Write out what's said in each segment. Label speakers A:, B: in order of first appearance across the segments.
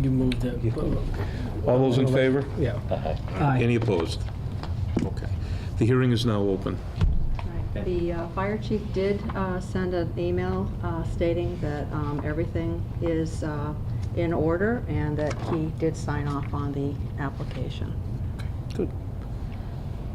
A: you moved it.
B: All those in favor?
A: Yeah.
B: Any opposed? Okay. The hearing is now open.
C: Right. The uh, fire chief did uh, send an email uh, stating that um, everything is uh, in order and that he did sign off on the application.
B: Good.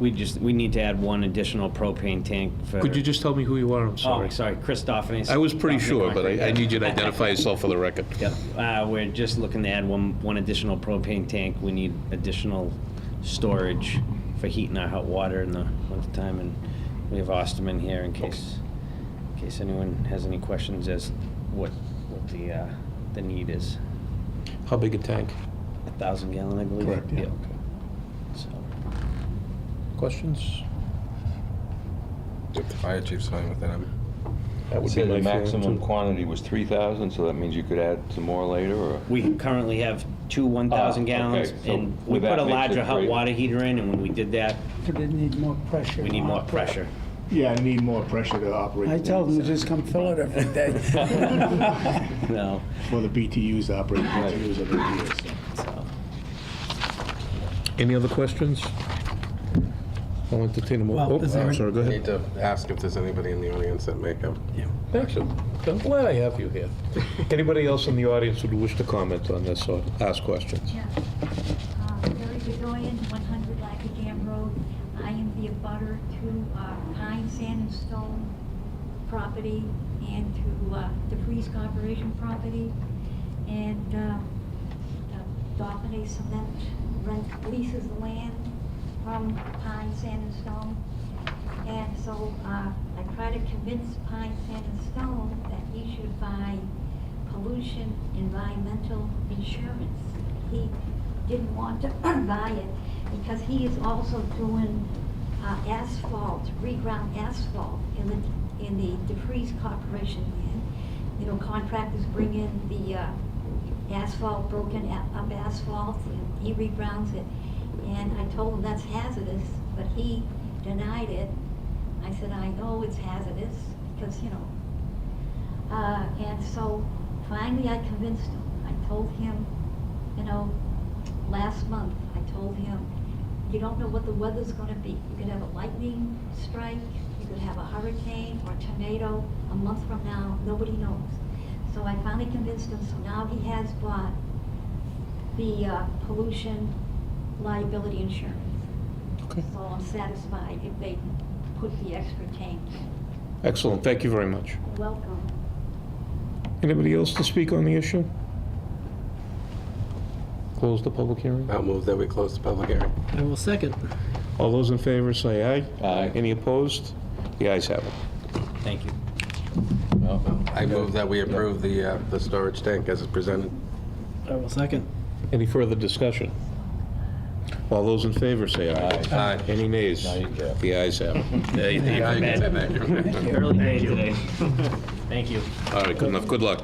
D: We just, we need to add one additional propane tank for.
B: Could you just tell me who you are? I'm
D: Oh,
B: sorry.
D: sorry, Christophernes.
B: I was pretty sure, but I I need you to identify yourself for the record.
D: Yep, uh, we're just looking to add one, one additional propane tank. We need additional storage for heating our hot water in the wintertime, and we have Osterman here in case, in case anyone has any questions as what, what the, uh, the need is.
B: How big a tank?
D: A thousand gallon, I believe.
B: Correct, yeah.
D: Yep. So,
B: Questions?
E: If the fire chief's fine with it, I'm,
B: That would be
F: Said
B: my
F: the
B: feeling,
F: maximum
B: too.
F: quantity was 3,000, so that means you could add some more later, or?
D: We currently have two 1,000
F: Ah, okay,
D: gallons,
F: so
D: and we
F: would
D: put
F: that
D: a
F: make it
D: larger hot
F: greater?
D: water heater in, and when we did that,
G: But it need more pressure.
D: we need more pressure.
H: Yeah, I need more pressure to operate.
G: I
H: the
G: tell them to
H: units,
G: just come fill it every day.
D: No,
H: For the BTUs to operate, the BTUs over the years. so.
D: so,
B: Any other questions? I'll entertain them.
A: Well,
B: all.
A: is
B: Oh,
A: there-
B: I'm sorry, go
E: I
B: ahead.
E: need to ask if there's anybody in the audience that may have.
B: Excellent. I'm glad I have you here. Anybody else in the audience who would wish to comment on this or ask questions?
I: Yeah. Uh, Mary Bedoyan, 100 Lackadam Road. I am the abutter to uh, Pine Sand and Stone property and to uh, the Freeze Corporation property and uh, uh, Dauphiny Cement rent leases the land from Pine Sand and Stone. And so uh, I try to convince Pine Sand and Stone that he should buy pollution environmental insurance. He didn't want to buy it because he is also doing uh, asphalt, reground asphalt in the, in the DeFreeze Corporation land. You know, contractors bring in the uh, asphalt, broken a- up asphalt, and he regrounds it. And I told him that's hazardous, but he denied it. I said, I know it's hazardous because, you know, uh, and so finally I convinced him. I told him, you know, last month, I told him, you don't know what the weather's gonna be. You could have a lightning strike, you could have a hurricane or a tornado a month from now, nobody knows. So I finally convinced him, so now he has bought the uh, pollution liability insurance. So I'm satisfied if they put the extra tank.
B: Excellent, thank you very much.
I: Welcome.
B: Anybody else to speak on the issue? Close the public hearing.
E: I'll move that we close the public hearing.
A: I will second.
B: All those in favor say aye.
F: Aye.
B: Any opposed? The ayes have it.
D: thank you.
E: I move that we approve the, uh, the storage tank as it's presented.
A: I will second.
B: Any further discussion? All those in favor say aye.
E: Aye.
B: Any nays?
F: you go.
B: The ayes have it.
E: Yeah, you can say that.
D: Early day today. Thank you.
B: All right, good enough, good luck.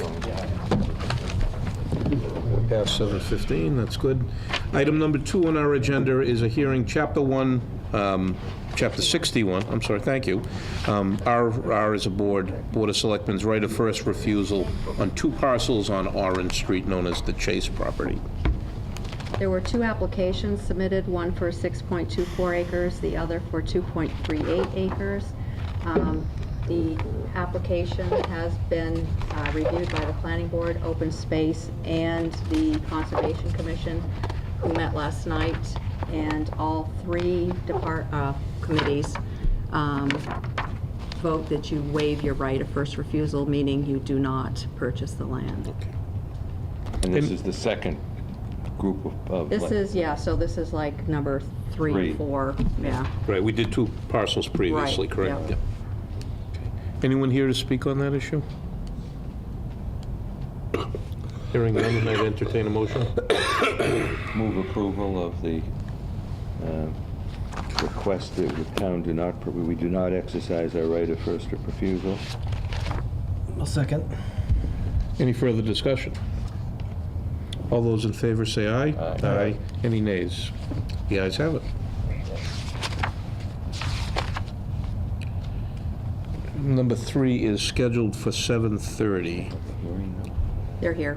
B: Past 7:15, that's good. Item number two on our agenda is a hearing, Chapter 1, um, Chapter 61, I'm sorry, thank you. Um, Our, our is a board, Board of Selectmen's right of first refusal on two parcels on Orange Street known as the Chase property.
C: There were two applications submitted, one for 6.24 acres, the other for 2.38 acres. Um, The application has been uh, reviewed by the Planning Board, Open Space, and the Conservation Commission, who met last night, and all three depart, uh, committees um, vote that you waive your right of first refusal, meaning you do not purchase the land.
F: And this is the second group of- of...
C: This
F: like-
C: is, yeah, so this is like number three,
F: Three.
C: four, yeah.
B: Right, we did two parcels previously,
C: Right,
B: correct?
C: yeah.
B: Yeah. Anyone here to speak on that issue? Hearing none, and I'd entertain a motion.
F: Move approval of the uh, request that the town do not, we do not exercise our right of first refusal.
A: I'll second.
B: Any further discussion? All those in favor say aye.
F: Aye.
B: Any nays? The ayes have it. Number three is scheduled for 7:30.
C: They're here.